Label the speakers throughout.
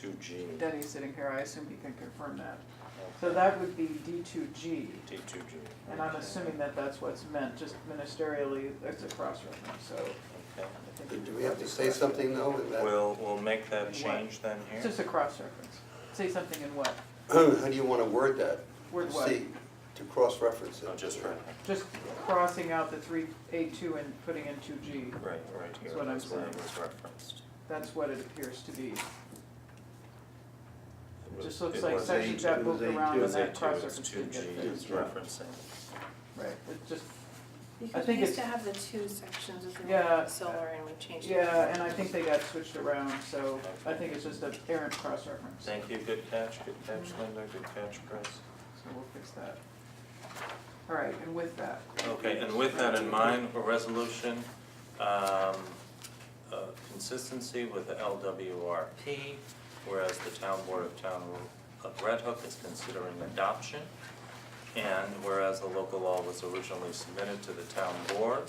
Speaker 1: Two G,
Speaker 2: Denny's sitting here, I assume he can confirm that. So
Speaker 1: okay,
Speaker 2: that would be D two G,
Speaker 1: D two G.
Speaker 2: and I'm assuming that that's what's meant, just ministerially, it's a cross-reference, so
Speaker 1: Okay.
Speaker 2: I think.
Speaker 3: Do
Speaker 2: it
Speaker 3: we have to say something though? in that-
Speaker 1: We'll, we'll make that
Speaker 2: What?
Speaker 1: change then
Speaker 2: It's
Speaker 1: here.
Speaker 2: just a cross-reference. Say something in what?
Speaker 3: How do you want to word that?
Speaker 2: Word what?
Speaker 3: C, to cross-reference it.
Speaker 1: Oh, Just right,
Speaker 2: Just crossing out the three, A two and putting in two G.
Speaker 1: right, right here,
Speaker 2: That's what I'm
Speaker 1: that's where it
Speaker 2: saying.
Speaker 1: was referenced.
Speaker 2: That's what it appears to be.
Speaker 1: It was-
Speaker 2: Just looks
Speaker 1: it
Speaker 2: like
Speaker 1: was
Speaker 2: section
Speaker 1: A2.
Speaker 2: got moved around
Speaker 1: It
Speaker 2: and
Speaker 1: was A
Speaker 2: that
Speaker 1: two, it's
Speaker 2: cross-reference
Speaker 1: two
Speaker 2: didn't
Speaker 1: G,
Speaker 2: get
Speaker 1: it's
Speaker 2: fixed.
Speaker 1: referencing.
Speaker 2: Right, it's just,
Speaker 4: Because we
Speaker 2: think
Speaker 4: used to
Speaker 2: it's-
Speaker 4: have the two sections of
Speaker 2: Yeah.
Speaker 4: the solar and we changed it.
Speaker 2: yeah, and I think they got switched around, so I think it's just a errant cross-reference.
Speaker 1: Thank you, good catch, good catch Linda, good catch Chris.
Speaker 2: So we'll fix that. All right, and with that,
Speaker 1: Okay, and with that in mind, a resolution, um, uh, consistency with the LWRP, whereas the town board of town of Red Hook is considering adoption. And whereas the local law was originally submitted to the town board.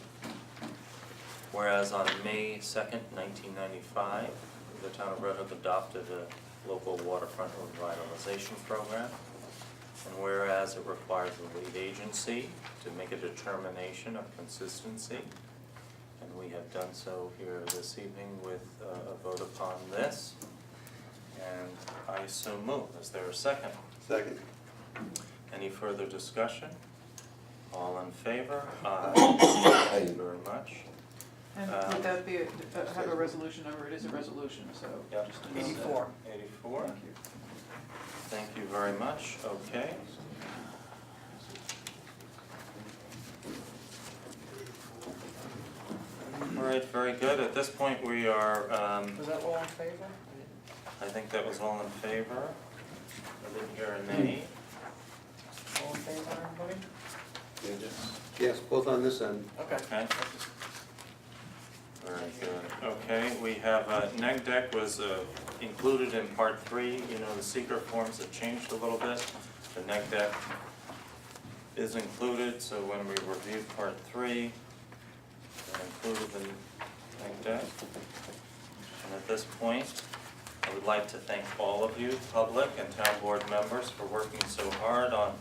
Speaker 1: Whereas on May second, nineteen ninety-five, the town of Red Hook adopted a local waterfront revitalization program. And whereas it requires the lead agency to make a determination of consistency, and we have done so here this evening with uh, a vote upon this. And I so move, is there a second?
Speaker 3: Second.
Speaker 1: Any further discussion? All in favor? Aye. Thank you very much.
Speaker 2: and
Speaker 1: Um,
Speaker 2: would that be, a- uh, have a resolution number, it is a resolution, so
Speaker 1: Yep.
Speaker 2: just to note that.
Speaker 1: Eighty-four,
Speaker 2: Thank you.
Speaker 1: thank you very much, okay. All right, very good, at this point, we are, um,
Speaker 5: Was that all in favor?
Speaker 1: I think that was all in favor. I didn't hear a nay.
Speaker 5: All in favor, everybody?
Speaker 3: Yeah, just- Yes, both on this end.
Speaker 5: Okay.
Speaker 1: Okay. Very good. Okay, we have, uh, neg deck was uh, included in part three, you know, the secret forms have changed a little bit. The neg deck is included, so when we review part three, we included the neg deck. And at this point, I would like to thank all of you, public and town board members, for working so hard on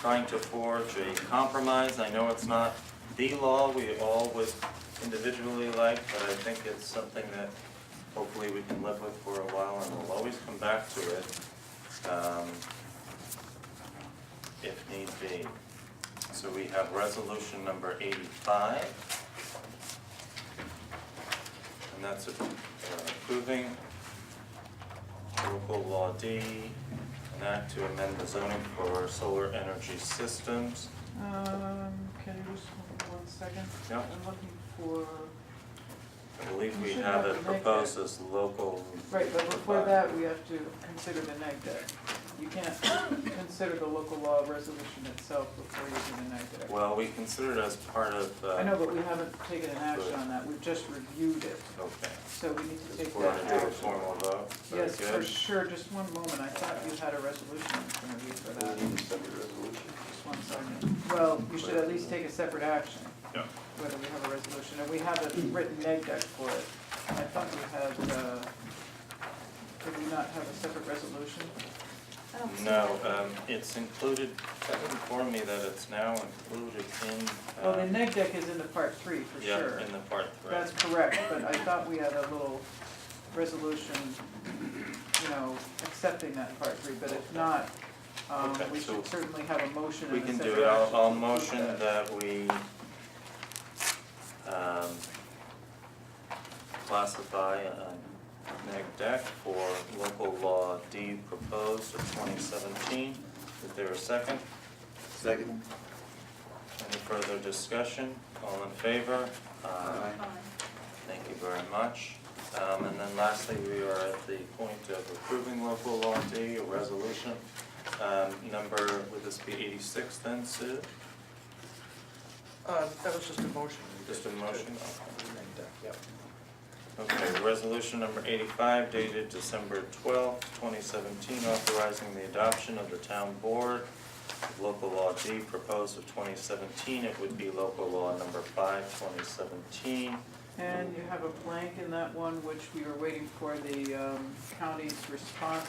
Speaker 1: trying to forge a compromise. I know it's not the law we all would individually like, but I think it's something that hopefully we can live with for a while and we'll always come back to it, um, if need be. So we have resolution number eighty-five. And that's uh, approving local law D, an act to amend the zoning for solar energy systems.
Speaker 2: Um, can you just hold one second?
Speaker 1: Yeah.
Speaker 2: I'm looking for,
Speaker 1: I believe we
Speaker 2: You should
Speaker 1: have
Speaker 2: have
Speaker 1: it
Speaker 2: to make
Speaker 1: proposed as local.
Speaker 2: right, but before that, we have to consider the neg deck. You can't consider the local law resolution itself before you do the neg deck.
Speaker 1: Well, we consider it as part of, uh.
Speaker 2: I know, but we haven't taken an action on that, we've just reviewed it,
Speaker 1: Okay.
Speaker 2: so we need to take
Speaker 1: We're
Speaker 2: that
Speaker 1: gonna do a
Speaker 2: action.
Speaker 1: formal vote. Very
Speaker 2: Yes, for
Speaker 1: good.
Speaker 2: sure, just one moment, I thought you had a resolution in front of you for
Speaker 3: We
Speaker 1: Mm-hmm.
Speaker 2: that,
Speaker 3: need a separate resolution.
Speaker 2: just one second. Well, you should at least take a separate action,
Speaker 1: Yeah.
Speaker 2: whether we have a resolution, and we have a written neg deck for it. I thought we had, uh, did we not have a separate resolution?
Speaker 4: I don't see
Speaker 1: No,
Speaker 4: that.
Speaker 1: um, it's included, Kevin informed me that it's now included in,
Speaker 2: Well, the
Speaker 1: uh,
Speaker 2: neg deck is Oh, in the part three, for sure.
Speaker 1: yeah, in the part three.
Speaker 2: That's correct, but I thought we had a little resolution, you know, accepting that part three, but if not, um,
Speaker 1: Okay,
Speaker 2: we
Speaker 1: so
Speaker 2: should certainly have a motion
Speaker 1: We
Speaker 2: and a
Speaker 1: can
Speaker 2: separate action.
Speaker 1: do it, I'll, I'll
Speaker 2: to
Speaker 1: motion
Speaker 2: that.
Speaker 1: that we, um, classify a neg deck for local law D proposed of twenty seventeen. Is there a second?
Speaker 3: Second.
Speaker 1: Any further discussion? All in favor? Aye.
Speaker 4: Fine.
Speaker 1: Thank you very much. Um, and then lastly, we are at the point of approving local law D, a resolution. Um, number, would this be eighty-six then, Sue?
Speaker 5: Uh, that was just a motion. we
Speaker 1: Just a
Speaker 5: did.
Speaker 1: motion?
Speaker 5: Yep.
Speaker 1: Okay, resolution number eighty-five dated December twelfth, twenty seventeen, authorizing the adoption of the town board of local law D proposed of twenty seventeen, it would be local law number five, twenty seventeen,
Speaker 2: And you have a blank in that one, which we were waiting for the um, county's response